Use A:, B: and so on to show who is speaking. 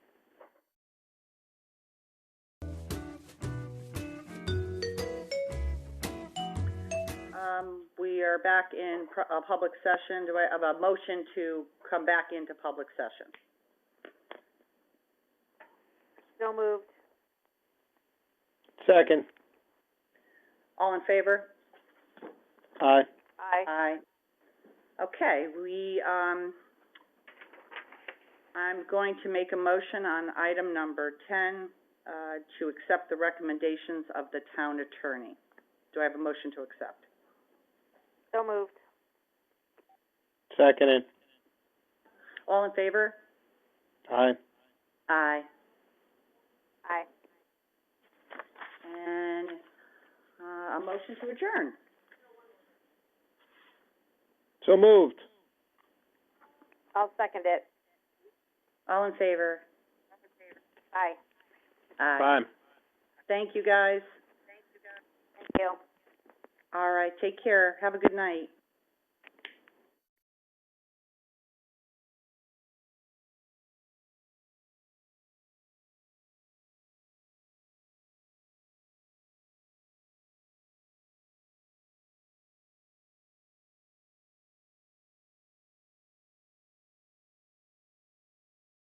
A: Um, we are back in pr- a public session. Do I have a motion to come back into public session?
B: So moved.
C: Second.
A: All in favor?
C: Aye.
B: Aye.
A: Aye. Okay, we, um, I'm going to make a motion on item number ten, uh, to accept the recommendations of the town attorney. Do I have a motion to accept?
B: So moved.
C: Seconded.
A: All in favor?
C: Aye.
A: Aye.
B: Aye.
A: And, uh, a motion to adjourn.
C: So moved.
B: I'll second it.
A: All in favor?
B: Aye.
A: Aye.
C: Aye.
A: Thank you, guys.
B: Thank you.
A: All right, take care. Have a good night.